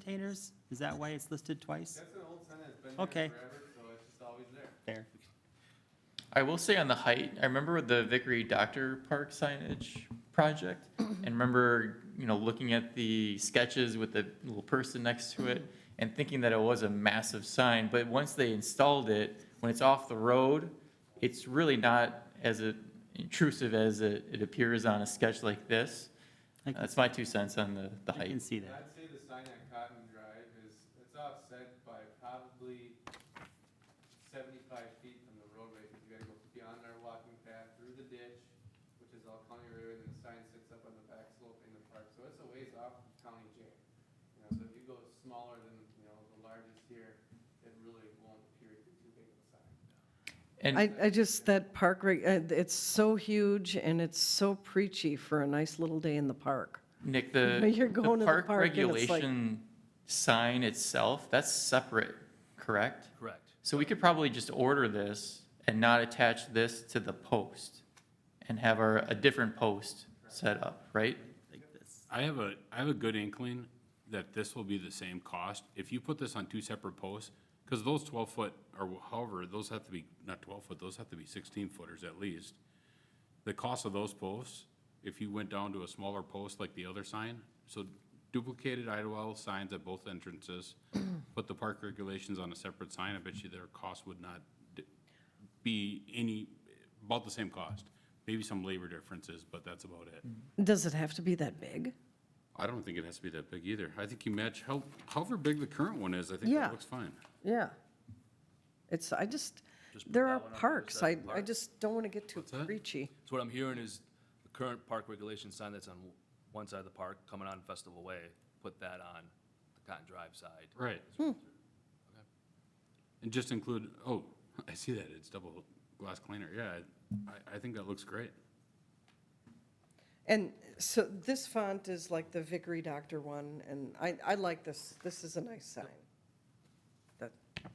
containers? Is that why it's listed twice? That's an old sentence, been Okay. there forever, so it's just always there. There. I will say on the height, I remember with the Vickery Doctor Park signage project, and remember, you know, looking at the sketches with the little person next to it, and thinking that it was a massive sign, but once they installed it, when it's off the road, it's really not as uh, intrusive as it, it appears on a sketch like this. I can- That's my two cents on the, the I can height. see that. I'd say the sign at Cotton Drive is, it's offset by probably seventy-five feet from the roadway, because you gotta go beyond our walking path, through the ditch, which is all county road, and the sign sits up on the back slope in the park, so it's a ways off from county jail. You know, so if you go smaller than, you know, the largest here, it really won't appear to be too big of a sign. And, I, I just, that park, reg- uh, it's so huge and it's so preachy for a nice little day in the park. Nick, the, You're going the to the park park and it's like- regulation sign itself, that's separate, correct? Correct. So we could probably just order this and not attach this to the post and have our, a different post set up, right? Like this. I have a, I have a good inkling that this will be the same cost. If you put this on two separate posts, because those twelve foot, or however, those have to be, not twelve foot, those have to be sixteen footers at least. The cost of those posts, if you went down to a smaller post like the other sign, so duplicated Idlewild signs at both entrances, put the park regulations on a separate sign, I bet you their cost would not d- be any, about the same cost. Maybe some labor differences, but that's about it. Does it have to be that big? I don't think it has to be that big either. I think you match how, however big the current one is, I think Yeah. that looks fine. Yeah. It's, I just, Just put there that are one up as a parks, I, separate I park. just don't want to get too What's that? preachy. So what I'm hearing is the current park regulation sign that's on one side of the park, coming on Festival Way, put that on the Cotton Drive side. Right. And just include, oh, I see that, it's double glass cleaner, yeah, I, I think that looks great. And so this font is like the Vickery Doctor one, and I, I like this, this is a nice sign. That,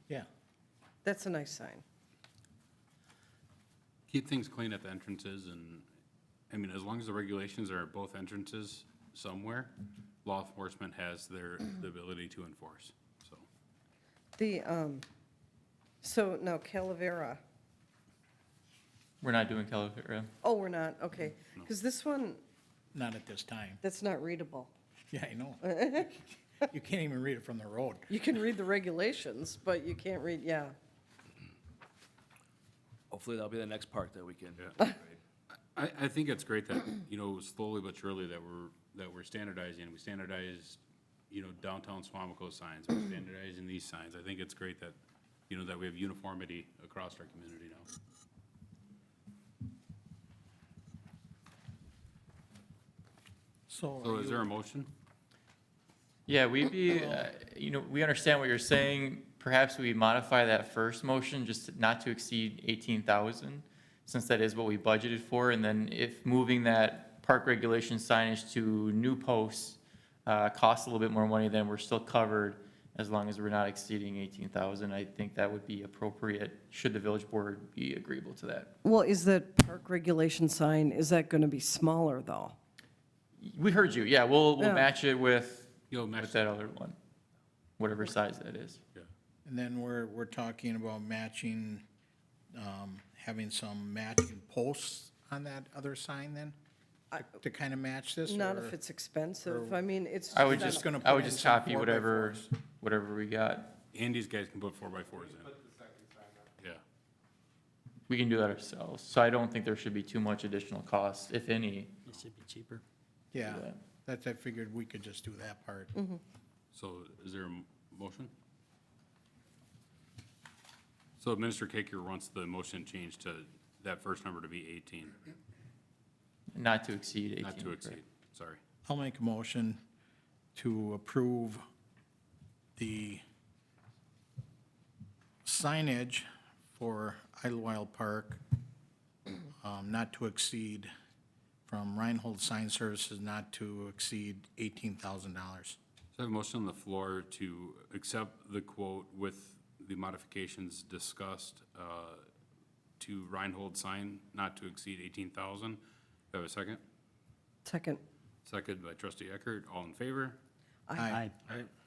Yeah. that's a nice sign. Keep things clean at the entrances and, I mean, as long as the regulations are at both entrances somewhere, law enforcement has their, the ability to enforce, so. The, um, so now Calavera. We're not doing Calavera. Oh, we're not, okay. Because this one, Not at this time. that's not readable. Yeah, I know. You can't even read it from the road. You can read the regulations, but you can't read, yeah. Hopefully that'll be the next park that we can. I, I think it's great that, you know, slowly but surely that we're, that we're standardizing, we standardized, you know, downtown Swamico signs, we're standardizing these signs. I think it's great that, you know, that we have uniformity across our community now. So So are is you- there a motion? Yeah, we'd Oh. be, uh, you know, we understand what you're saying. Perhaps we modify that first motion just not to exceed 18,000, since that is what we budgeted for. And then if moving that park regulation signage to new posts uh, costs a little bit more money, then we're still covered as long as we're not exceeding 18,000. I think that would be appropriate, should the village board be agreeable to that. Well, is that park regulation sign, is that going to be smaller, though? We heard you, yeah, we'll, we'll Yeah. match it with, You'll match with that other one, whatever size that is. And then we're, we're talking about matching, um, having some matching posts on that other sign then? to- To kind of match this? Not or- if it's expensive. I mean, it's. I would Just just, gonna I put would in just some copy four by whatever, fours. whatever we got. And these guys can put four by fours in, Put the second sign up. yeah. We can do that ourselves. So I don't think there should be too much additional cost, if any. It should be cheaper. Yeah, that. that's, I figured we could just do that part. So is there a m- motion? So Minister Kaker wants the motion changed to that first number to be eighteen, Not to exceed 18. not to correct? exceed, sorry. I'll make a motion to approve the signage for Idlewild Park, um, not to exceed, from Reinhold Sign Services, not to exceed $18,000. So I have a motion on the floor to accept the quote with the modifications discussed uh, to Reinhold sign not to exceed 18,000. Do I have a second? Second. Second by trustee Eckert. All in favor? Aye. All right.